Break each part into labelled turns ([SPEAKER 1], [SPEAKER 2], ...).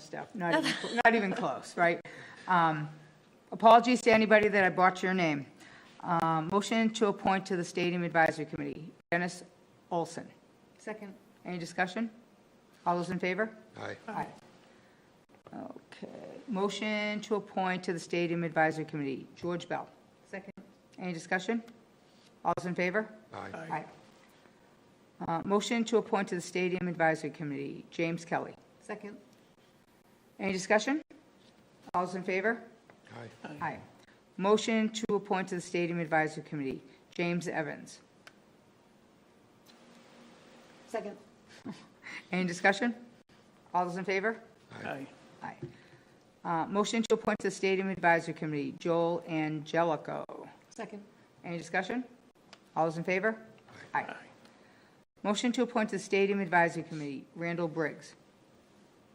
[SPEAKER 1] stuff, not even, not even close, right? Um, Apologies to anybody that I bought your name. Um, Motion to appoint to the Stadium Advisory Committee, Dennis Olson.
[SPEAKER 2] Second.
[SPEAKER 1] Any discussion? All those in favor?
[SPEAKER 3] Aye.
[SPEAKER 1] Aye. Okay. Motion to appoint to the Stadium Advisory Committee, George Bell.
[SPEAKER 2] Second.
[SPEAKER 1] Any discussion? All those in favor?
[SPEAKER 3] Aye.
[SPEAKER 1] Aye. Uh, Motion to appoint to the Stadium Advisory Committee, James Kelly.
[SPEAKER 2] Second.
[SPEAKER 1] Any discussion? All those in favor?
[SPEAKER 3] Aye.
[SPEAKER 1] Aye. Motion to appoint to the Stadium Advisory Committee, James Evans.
[SPEAKER 2] Second.
[SPEAKER 1] Any discussion? All those in favor?
[SPEAKER 3] Aye.
[SPEAKER 1] Aye. Uh, Motion to appoint to the Stadium Advisory Committee, Joel Angelico.
[SPEAKER 2] Second.
[SPEAKER 1] Any discussion? All those in favor? Aye. Motion to appoint to the Stadium Advisory Committee, Randall Briggs.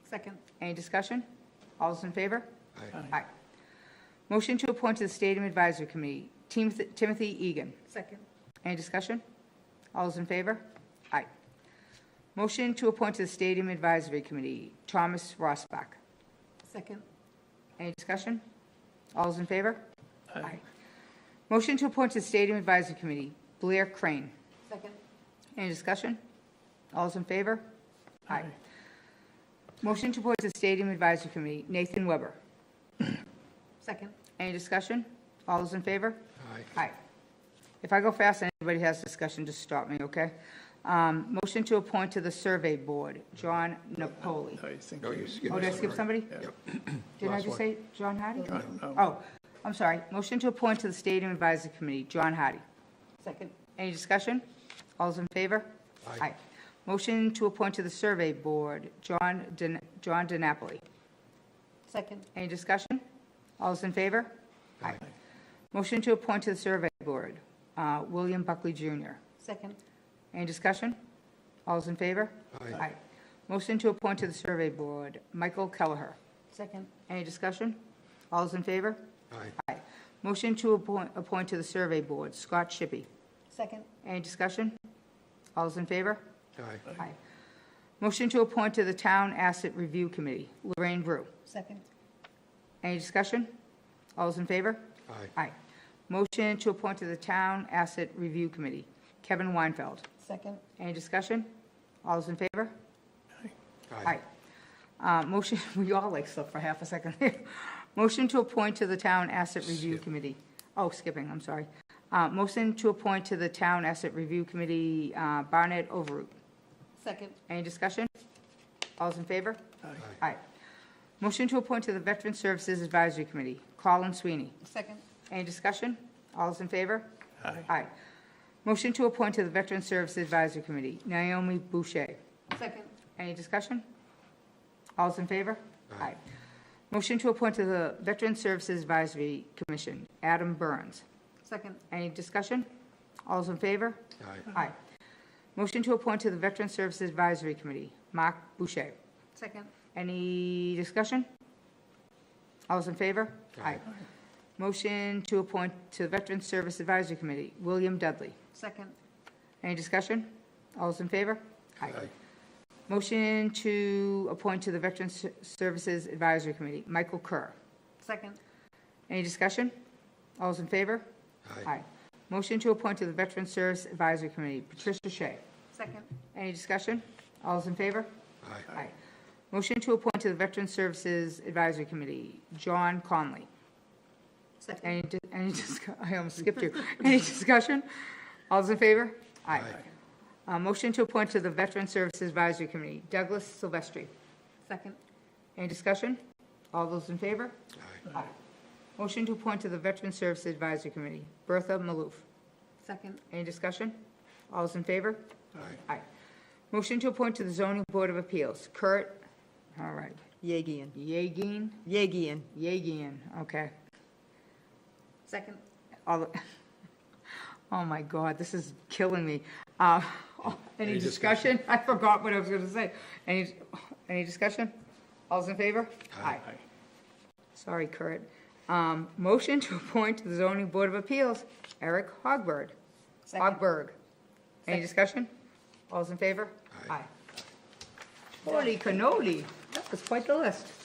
[SPEAKER 2] Second.
[SPEAKER 1] Any discussion? All those in favor?
[SPEAKER 3] Aye.
[SPEAKER 1] Aye. Motion to appoint to the Stadium Advisory Committee, Timothy Timothy Egan.
[SPEAKER 2] Second.
[SPEAKER 1] Any discussion? All those in favor? Aye. Motion to appoint to the Stadium Advisory Committee, Thomas Rossbach.
[SPEAKER 2] Second.
[SPEAKER 1] Any discussion? All those in favor? Aye. Motion to appoint to the Stadium Advisory Committee, Blair Crane.
[SPEAKER 2] Second.
[SPEAKER 1] Any discussion? All those in favor? Aye. Motion to appoint to the Stadium Advisory Committee, Nathan Weber.
[SPEAKER 2] Second.
[SPEAKER 1] Any discussion? All those in favor?
[SPEAKER 3] Aye.
[SPEAKER 1] Aye. If I go fast and anybody has discussion, just stop me, okay? Um, Motion to appoint to the Survey Board, John Napoli.
[SPEAKER 4] I think,
[SPEAKER 3] No, you skipped.
[SPEAKER 1] Oh, did I
[SPEAKER 3] it.
[SPEAKER 1] skip somebody?
[SPEAKER 4] Yep.
[SPEAKER 1] Didn't I
[SPEAKER 3] Last
[SPEAKER 1] just
[SPEAKER 3] one.
[SPEAKER 1] say John Hardy?
[SPEAKER 4] I don't know.
[SPEAKER 1] Oh, I'm sorry. Motion to appoint to the Stadium Advisory Committee, John Hardy.
[SPEAKER 2] Second.
[SPEAKER 1] Any discussion? All those in favor?
[SPEAKER 3] Aye.
[SPEAKER 1] Motion to appoint to the Survey Board, John Din- John DiNapoli.
[SPEAKER 2] Second.
[SPEAKER 1] Any discussion? All those in favor? Aye. Motion to appoint to the Survey Board, uh, William Buckley Jr.
[SPEAKER 2] Second.
[SPEAKER 1] Any discussion? All those in favor?
[SPEAKER 3] Aye.
[SPEAKER 1] Motion to appoint to the Survey Board, Michael Kelleher.
[SPEAKER 2] Second.
[SPEAKER 1] Any discussion? All those in favor?
[SPEAKER 3] Aye.
[SPEAKER 1] Aye. Motion to appoint, appoint to the Survey Board, Scott Shippey.
[SPEAKER 2] Second.
[SPEAKER 1] Any discussion? All those in favor?
[SPEAKER 3] Aye.
[SPEAKER 1] Aye. Motion to appoint to the Town Asset Review Committee, Lorraine Brew.
[SPEAKER 2] Second.
[SPEAKER 1] Any discussion? All those in favor?
[SPEAKER 3] Aye.
[SPEAKER 1] Aye. Motion to appoint to the Town Asset Review Committee, Kevin Weinfeld.
[SPEAKER 2] Second.
[SPEAKER 1] Any discussion? All those in favor? Aye.
[SPEAKER 3] Aye.
[SPEAKER 1] Uh, Motion, we all like slept for half a second there. Motion to appoint to the Town Asset Review Committee. Oh, skipping, I'm sorry. Uh, Motion to appoint to the Town Asset Review Committee uh, Barnett Overroot.
[SPEAKER 2] Second.
[SPEAKER 1] Any discussion? All's in favor?
[SPEAKER 3] Aye.
[SPEAKER 1] Aye. Motion to appoint to the Veteran Services Advisory Committee, Colin Sweeney.
[SPEAKER 2] Second.
[SPEAKER 1] Any discussion? All's in favor?
[SPEAKER 4] Aye.
[SPEAKER 1] Aye. Motion to appoint to the Veteran Services Advisory Committee, Naomi Boucher.
[SPEAKER 2] Second.
[SPEAKER 1] Any discussion? All's in favor?
[SPEAKER 3] Aye.
[SPEAKER 1] Motion to appoint to the Veteran Services Advisory Commission, Adam Burns.
[SPEAKER 2] Second.
[SPEAKER 1] Any discussion? All's in favor?
[SPEAKER 3] Aye.
[SPEAKER 1] Aye. Motion to appoint to the Veteran Services Advisory Committee, Mark Boucher.
[SPEAKER 2] Second.
[SPEAKER 1] Any discussion? All those in favor?
[SPEAKER 3] Aye.
[SPEAKER 1] Motion to appoint to the Veteran Service Advisory Committee, William Dudley.
[SPEAKER 2] Second.
[SPEAKER 1] Any discussion? All those in favor?
[SPEAKER 3] Aye.
[SPEAKER 1] Motion to appoint to the Veteran S- Services Advisory Committee, Michael Kerr.
[SPEAKER 2] Second.
[SPEAKER 1] Any discussion? All those in favor?
[SPEAKER 3] Aye.
[SPEAKER 1] Motion to appoint to the Veteran Service Advisory Committee, Patricia Shea.
[SPEAKER 2] Second.
[SPEAKER 1] Any discussion? All those in favor?
[SPEAKER 3] Aye.
[SPEAKER 1] Aye. Motion to appoint to the Veteran Services Advisory Committee, John Conley.
[SPEAKER 2] Second.
[SPEAKER 1] Any, di- any, discu- I almost skipped you. Any discussion? All those in favor? Aye. Uh, Motion to appoint to the Veteran Services Advisory Committee, Douglas Silvestri.
[SPEAKER 2] Second.
[SPEAKER 1] Any discussion? All those in favor?
[SPEAKER 3] Aye.
[SPEAKER 1] Aye. Motion to appoint to the Veteran Services Advisory Committee, Bertha Maloof.
[SPEAKER 2] Second.
[SPEAKER 1] Any discussion? All those in favor?
[SPEAKER 3] Aye.
[SPEAKER 1] Aye. Motion to appoint to the Zoning Board of Appeals, Kurt, all right,
[SPEAKER 5] Yegian.
[SPEAKER 1] Yagin,
[SPEAKER 5] Yegian.
[SPEAKER 1] Yagin, okay.
[SPEAKER 2] Second.
[SPEAKER 1] All, the- oh my God, this is killing me. Uh, Any
[SPEAKER 3] Any
[SPEAKER 1] discussion? I forgot what I was going to say. Any, any discussion? All's in favor? Aye. Sorry, Kurt. Um, Motion to appoint to the zoning board of appeals, Eric Hogberg.
[SPEAKER 2] Second.
[SPEAKER 1] Hogberg. Any discussion? All's in favor?
[SPEAKER 3] Aye.
[SPEAKER 1] Holy cannoli. It's quite the list.